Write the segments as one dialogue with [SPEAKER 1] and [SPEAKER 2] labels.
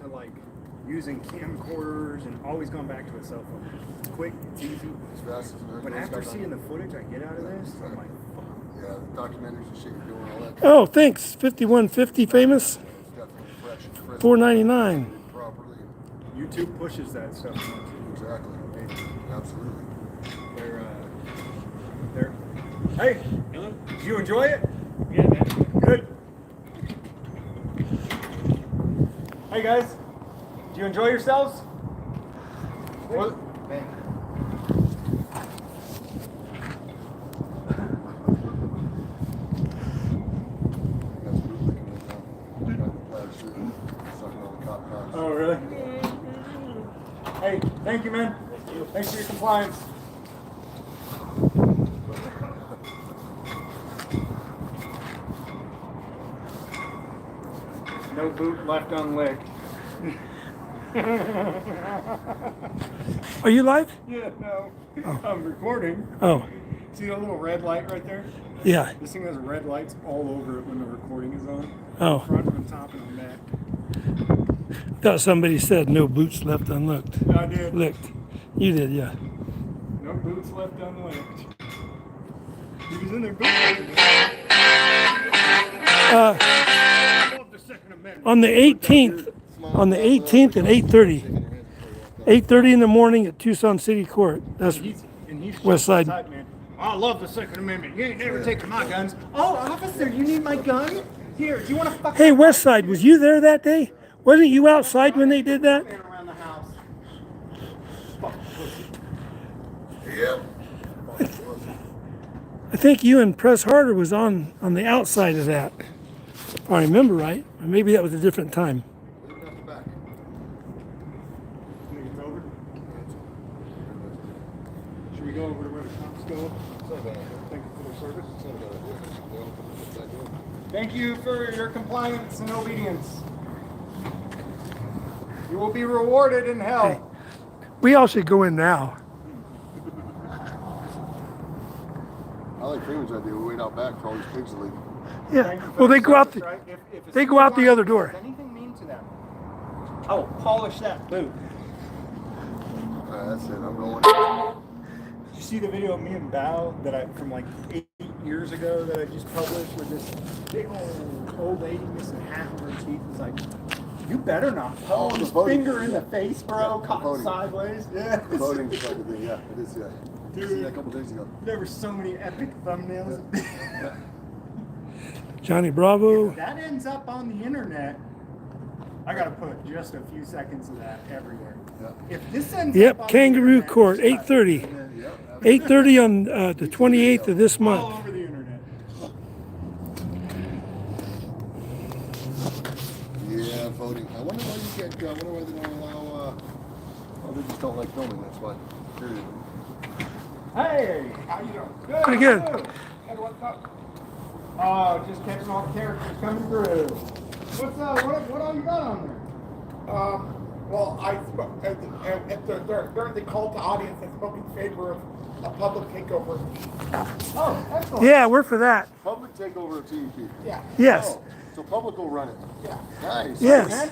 [SPEAKER 1] to like using camcorders and always going back to a cell phone. It's quick, it's easy.
[SPEAKER 2] It's fast as an
[SPEAKER 1] But after seeing the footage I get out of this, I'm like, fuck.
[SPEAKER 2] Yeah, the documentaries and shit you're doing, all that.
[SPEAKER 3] Oh, thanks. 5150 famous,
[SPEAKER 2] It's definitely fresh and crisp.
[SPEAKER 3] 499.
[SPEAKER 2] Properly.
[SPEAKER 1] YouTube pushes that stuff.
[SPEAKER 2] Exactly. Absolutely.
[SPEAKER 1] They're, uh, they're. Hey,
[SPEAKER 4] Hello?
[SPEAKER 1] did you enjoy it?
[SPEAKER 4] Yeah, man.
[SPEAKER 1] Good. Hey guys, do you enjoy yourselves? What?
[SPEAKER 2] That's what we're looking at now. Got the plaid shirt, sucking all the cop cocks.
[SPEAKER 1] Oh, really? Hey, thank you, man. Thanks for your compliance. No boot left unlicked.
[SPEAKER 3] Are you live?
[SPEAKER 1] Yeah, no. I'm recording.
[SPEAKER 3] Oh,
[SPEAKER 1] See that little red light right there?
[SPEAKER 3] yeah.
[SPEAKER 1] This thing has red lights all over it when the recording is on.
[SPEAKER 3] Oh,
[SPEAKER 1] Front and top and back.
[SPEAKER 3] thought somebody said no boots left unlooked.
[SPEAKER 1] I did.
[SPEAKER 3] Licked. You did, yeah.
[SPEAKER 1] No boots left unlicked. He was in there boots.
[SPEAKER 3] Uh,
[SPEAKER 1] the Second Amendment.
[SPEAKER 3] on the 18th, on the 18th at 8:30,
[SPEAKER 2] Taking your hands before you walk down.
[SPEAKER 3] 8:30 in the morning at Tucson City Court. That's
[SPEAKER 1] He's, and he's
[SPEAKER 3] West Side.
[SPEAKER 1] the type, man. I love the Second Amendment. You ain't never taking my guns. Oh, officer, you need my gun? Here, do you want to fuck
[SPEAKER 3] Hey, West Side, was you there that day? Wasn't you outside when they did that?
[SPEAKER 1] man around the house? Fuck pussy.
[SPEAKER 2] Yep.
[SPEAKER 3] I think you and Press Harder was on on the outside of that. If I remember right. Or Maybe that was a different time.
[SPEAKER 2] Leave it out the back.
[SPEAKER 1] Think it's over? Should we go over to where the cops go?
[SPEAKER 2] It's not a bad idea.
[SPEAKER 1] Thank you for their service.
[SPEAKER 2] It's not a bad idea. It's a little bit of a good idea.
[SPEAKER 1] Thank you for your compliance and obedience. You will be rewarded in hell.
[SPEAKER 3] We all should go in now.
[SPEAKER 2] I like Freeman's idea. We wait out back for all these pigs to leave.
[SPEAKER 3] Yeah. Well, they go out the, they go out the other door.
[SPEAKER 1] Anything mean to them? I will polish that boot.
[SPEAKER 2] Alright, Uh, that's it. I'm rolling.
[SPEAKER 1] Did you see the video of me and Bao that I from like eight years ago that I just published with this big old old lady missing half of her teeth? It's like, you better not
[SPEAKER 2] Oh,
[SPEAKER 1] punch
[SPEAKER 2] the
[SPEAKER 1] his
[SPEAKER 2] voting.
[SPEAKER 1] finger in the face, bro.
[SPEAKER 2] Yeah,
[SPEAKER 1] caught
[SPEAKER 2] voting.
[SPEAKER 1] sideways. Yeah.
[SPEAKER 2] Voting is like a thing. Yeah, it is. Yeah. I seen that a couple days ago.
[SPEAKER 1] There were so many epic thumbnails.
[SPEAKER 3] Johnny Bravo.
[SPEAKER 1] that ends up on the internet. I gotta put just a few seconds of that everywhere.
[SPEAKER 2] Yeah.
[SPEAKER 1] If this ends up on
[SPEAKER 3] Yep.
[SPEAKER 1] the
[SPEAKER 3] Kangaroo
[SPEAKER 1] internet,
[SPEAKER 3] Court.
[SPEAKER 1] it's
[SPEAKER 3] Eight
[SPEAKER 1] cut.
[SPEAKER 3] thirty.
[SPEAKER 2] Yep.
[SPEAKER 3] Eight thirty on uh, the twenty eighth of this
[SPEAKER 1] All
[SPEAKER 3] month.
[SPEAKER 1] over the internet.
[SPEAKER 2] Yeah, voting. I wonder why you can't. I wonder why they don't allow. Uh, oh, they just don't like filming. That's why. Period.
[SPEAKER 1] Hey, how you doing? Good.
[SPEAKER 3] Pretty good.
[SPEAKER 1] how you doing? Hey, what's up? Oh, just catching all the characters coming through. What's up? What, what all you got on there?
[SPEAKER 5] Um, well, I spoke, at the, at- at the, during, during the call to audience, I spoke in favor of a public takeover.
[SPEAKER 1] Oh, excellent.
[SPEAKER 3] Yeah, we're for that.
[SPEAKER 2] Public takeover of TEP.
[SPEAKER 5] Yeah,
[SPEAKER 3] Yes.
[SPEAKER 2] Oh, so public will run it.
[SPEAKER 5] yeah.
[SPEAKER 2] Nice.
[SPEAKER 3] Yes.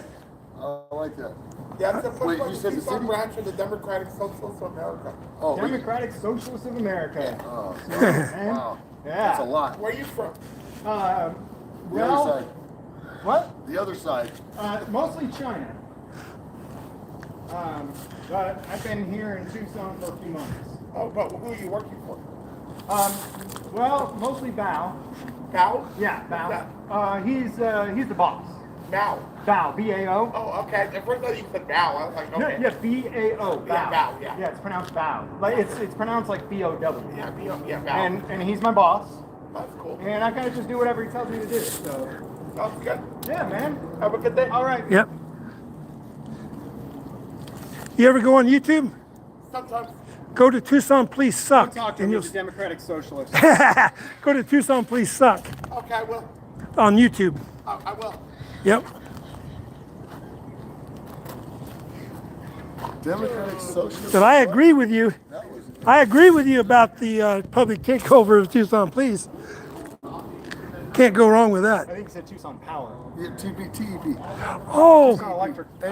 [SPEAKER 2] I like that.
[SPEAKER 5] That's the
[SPEAKER 2] Wait,
[SPEAKER 5] first
[SPEAKER 2] you
[SPEAKER 5] one
[SPEAKER 2] said
[SPEAKER 5] to
[SPEAKER 2] the
[SPEAKER 5] keep on
[SPEAKER 2] city-
[SPEAKER 5] branch of the Democratic Socialists of America.
[SPEAKER 2] Oh, wait.
[SPEAKER 1] Democratic Socialists of America.
[SPEAKER 2] Oh,
[SPEAKER 1] Man.
[SPEAKER 2] wow. That's a
[SPEAKER 1] Yeah.
[SPEAKER 2] lot.
[SPEAKER 5] Where are you from?
[SPEAKER 1] Um,
[SPEAKER 2] The other
[SPEAKER 1] well,
[SPEAKER 2] side.
[SPEAKER 1] what?
[SPEAKER 2] The other side.
[SPEAKER 1] Uh, mostly China. Um, but I've been here in Tucson for a few months.
[SPEAKER 5] Oh, but who are you working for?
[SPEAKER 1] Um, well, mostly Bao.
[SPEAKER 5] Now?
[SPEAKER 1] Yeah, Bao. Uh, he's uh, he's the boss.
[SPEAKER 5] Now.
[SPEAKER 1] Bao, B A O.
[SPEAKER 5] Oh, okay. The first time you said now, I was like,
[SPEAKER 1] No,
[SPEAKER 5] okay.
[SPEAKER 1] yeah, B A O.
[SPEAKER 5] Yeah, Bao, yeah.
[SPEAKER 1] Yeah, it's pronounced Bao. Like it's it's pronounced like B O W.
[SPEAKER 5] Yeah, me, yeah, yeah, now.
[SPEAKER 1] And and he's my boss,
[SPEAKER 5] That's cool.
[SPEAKER 1] and I kind of just do whatever he tells me to do. So
[SPEAKER 5] Sounds good.
[SPEAKER 1] yeah, man.
[SPEAKER 5] Have a good day.
[SPEAKER 1] All right.
[SPEAKER 3] Yep. You ever go on YouTube?
[SPEAKER 5] Sometimes.
[SPEAKER 3] Go to Tucson Please
[SPEAKER 1] I'm
[SPEAKER 3] Suck,
[SPEAKER 1] talking
[SPEAKER 3] and
[SPEAKER 1] to
[SPEAKER 3] you'll
[SPEAKER 1] the Democratic Socialist.
[SPEAKER 3] go to Tucson Please Suck
[SPEAKER 5] Okay, I will.
[SPEAKER 3] on YouTube.
[SPEAKER 5] I, I will.
[SPEAKER 3] Yep.
[SPEAKER 2] Democratic Socialist.
[SPEAKER 3] But I agree with you.
[SPEAKER 2] That was.
[SPEAKER 3] I agree with you about the uh, public takeover of Tucson Please. Can't go wrong with
[SPEAKER 1] I
[SPEAKER 3] that.
[SPEAKER 1] think he said Tucson Power.
[SPEAKER 2] Yeah, TP, TEP.
[SPEAKER 3] Oh.
[SPEAKER 1] Tucson Electric.